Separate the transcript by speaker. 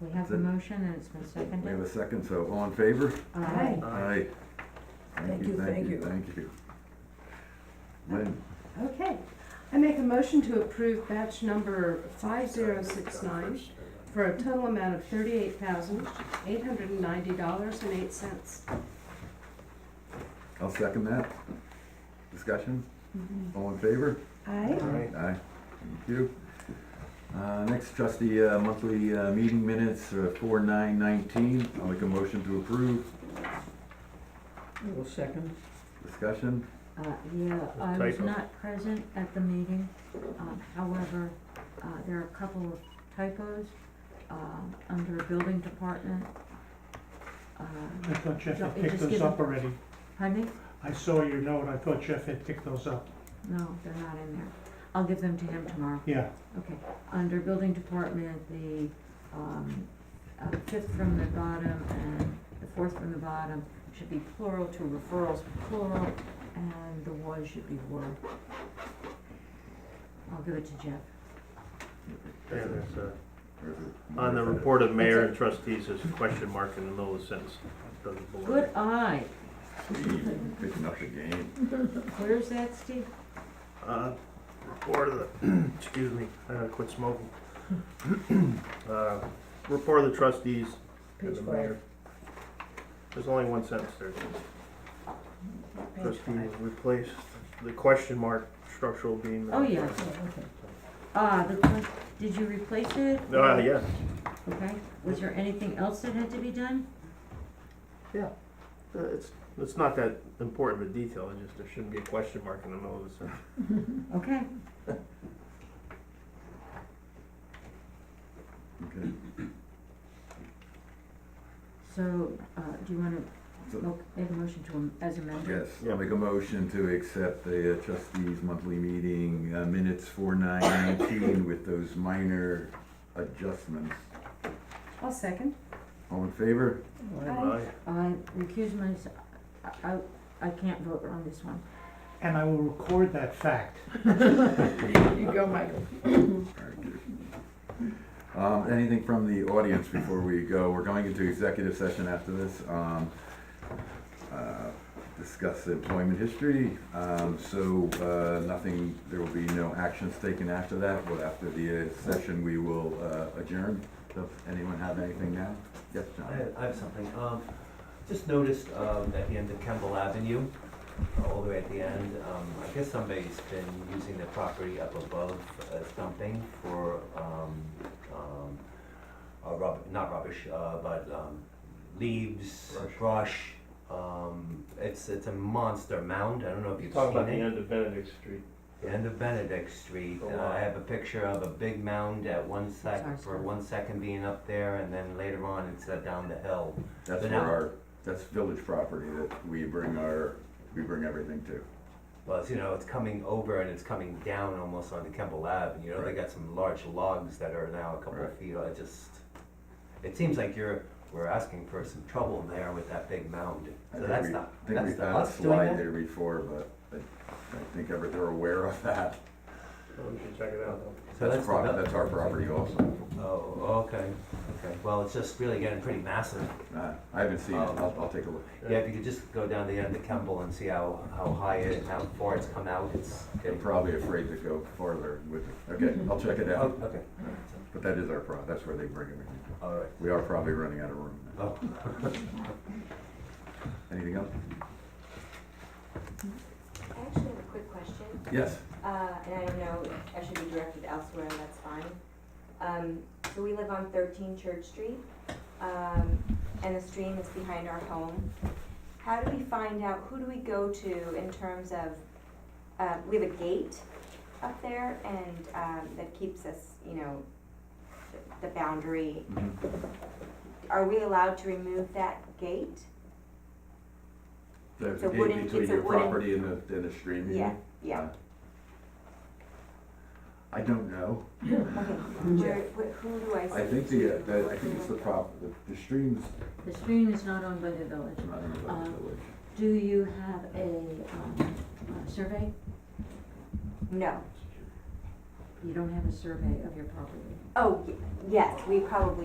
Speaker 1: We have the
Speaker 2: Is it-
Speaker 1: motion and it's been
Speaker 2: We have
Speaker 1: seconded.
Speaker 2: a second, so all in favor?
Speaker 1: Aye.
Speaker 2: Aye.
Speaker 3: Thank you, thank you.
Speaker 2: Thank you. Lynn,
Speaker 3: Okay, I make a motion to approve batch number five zero six nine for a total amount of thirty-eight thousand, eight hundred and ninety dollars and eight cents.
Speaker 2: I'll second that. Discussion?
Speaker 3: Mm-hmm.
Speaker 2: All in favor?
Speaker 3: Aye.
Speaker 2: Aye. Thank you. Uh, next trustee, uh, monthly, uh, meeting minutes, uh, four nine nineteen. I'll make a motion to approve.
Speaker 4: Well, second.
Speaker 2: Discussion?
Speaker 1: Uh, yeah, I was
Speaker 5: Typo.
Speaker 1: not present at the meeting, um, however, uh, there are a couple of typos, um, under building department. Um,
Speaker 5: I thought Jeff
Speaker 1: No,
Speaker 5: had
Speaker 1: it
Speaker 5: picked
Speaker 1: just
Speaker 5: those
Speaker 1: gives
Speaker 5: up
Speaker 1: them-
Speaker 5: already.
Speaker 1: Honey?
Speaker 5: I saw your note, I thought Jeff had picked those up.
Speaker 1: No, they're not in there. I'll give them to him tomorrow.
Speaker 5: Yeah,
Speaker 1: Okay, under building department, the, um, uh, fifth from the bottom and the fourth from the bottom should be plural to referrals plural, and the was should be were. I'll give it to Jeff.
Speaker 6: Yeah, that's, uh,
Speaker 2: Or is it-
Speaker 6: On the report of mayor and trustees, there's a question mark in the middle of the sentence. Doesn't belong.
Speaker 1: Good eye.
Speaker 2: Steve, Picking up the game.
Speaker 1: Where's that, Steve?
Speaker 6: Uh, Report of the, excuse me, I gotta quit smoking. Uh, Report of the trustees and the mayor. There's only one sentence there. Trustee replace the question mark structural beam.
Speaker 1: Oh, yeah. Ah, the, que- did you replace it?
Speaker 6: Uh, yeah,
Speaker 1: Okay, was there anything else that had to be done?
Speaker 6: Uh, it's, it's not that important of a detail, it just, there shouldn't be a question mark in the middle of the sentence.
Speaker 1: Okay,
Speaker 2: Okay.
Speaker 1: so, uh, do you wanna
Speaker 2: So-
Speaker 1: mo- make a motion to, am- as amended?
Speaker 2: Yes, I'll make a motion to accept the uh, trustees' monthly meeting uh, minutes for nine nineteen with those minor adjustments.
Speaker 3: I'll second.
Speaker 2: All in favor?
Speaker 3: Aye.
Speaker 1: I recuse myself, I, I- I can't vote on this one.
Speaker 5: and I will record that fact.
Speaker 4: You go, Michael.
Speaker 2: Alright, good. Um, anything from the audience before we go? We're going into executive session after this. Um, uh, discuss employment history, um, so, uh, nothing, there will be no actions taken after that. Well, after the uh, session, we will uh, adjourn. Does anyone have anything now? Yes,
Speaker 7: I
Speaker 2: John?
Speaker 7: have, I have something, um, just noticed, um, at the end of Kemble Avenue, uh, all the way at the end, um, I guess somebody's been using the property up above as dumping for, um, um, uh, rub, not rubbish, uh, but, um, leaves, brush, um, it's, it's a monster mound, I don't know if you've seen it.
Speaker 6: Talk about the end of Benedict Street.
Speaker 7: The end of Benedict Street,
Speaker 6: Oh,
Speaker 7: and
Speaker 6: wow.
Speaker 7: I have a picture of a big mound at one
Speaker 1: Sorry,
Speaker 7: sec, for
Speaker 1: sorry.
Speaker 7: one second being up there, and then later on, it's uh, down the hill.
Speaker 2: That's
Speaker 7: But
Speaker 2: for
Speaker 7: now-
Speaker 2: our, that's village property that we bring our, we bring everything to.
Speaker 7: Well, it's, you know, it's coming over and it's coming down almost onto Kemble Lab, and you know, they
Speaker 2: Right.
Speaker 7: got some large logs that are now a couple
Speaker 2: Right.
Speaker 7: of feet, I just, it seems like you're, we're asking for some trouble there with that big mound.
Speaker 2: I
Speaker 7: So
Speaker 2: think
Speaker 7: that's
Speaker 2: we-
Speaker 7: not,
Speaker 2: I think
Speaker 7: that's
Speaker 2: we've
Speaker 7: the
Speaker 2: had a
Speaker 7: us doing
Speaker 2: slide
Speaker 7: that.
Speaker 2: there before, but I, I think ever they're aware of that.
Speaker 6: Oh, We should check it out.
Speaker 7: So
Speaker 2: That's
Speaker 7: that's
Speaker 2: prop,
Speaker 7: the-
Speaker 2: that's our property also.
Speaker 7: Oh, okay, okay, well, it's just really getting pretty massive.
Speaker 2: Uh, I haven't seen it,
Speaker 7: Oh.
Speaker 2: I'll, I'll take a look.
Speaker 7: Yeah, if you could just go down the end of Kemble and see how, how high it, and how far it's come out, it's
Speaker 2: They're
Speaker 7: getting.
Speaker 2: probably afraid to go farther with it. Okay, I'll check it
Speaker 7: Oh,
Speaker 2: out.
Speaker 7: okay,
Speaker 2: But that is our pro, that's where they bring everything.
Speaker 7: all right,
Speaker 2: We are probably running out of room now.
Speaker 7: oh,
Speaker 2: Anything else?
Speaker 8: I actually have a quick question,
Speaker 2: Yes,
Speaker 8: uh, and I don't know, if I should be directed elsewhere, and that's fine. Um, so we live on thirteen Church Street, um, and the stream is behind our home. How do we find out, who do we go to in terms of, uh, we have a gate up there and, um, that keeps us, you know, the- the boundary.
Speaker 7: Mm-hmm.
Speaker 8: Are we allowed to remove that gate?
Speaker 2: there's a
Speaker 8: It's a wooden-
Speaker 2: gate between
Speaker 8: it's a
Speaker 2: your
Speaker 8: wooden-
Speaker 2: property and the, and the stream. you
Speaker 8: Yeah,
Speaker 2: mean?
Speaker 8: yeah,
Speaker 2: I don't know.
Speaker 8: okay. Where, wh- who do I see?
Speaker 2: I think the, uh, that, I think it's the prop, the, the stream's
Speaker 1: The stream is not owned by the village.
Speaker 2: not in the village.
Speaker 1: Do you have a, um, a survey?
Speaker 8: No.
Speaker 1: You don't have a survey of your property.
Speaker 8: Oh, y- yes, we probably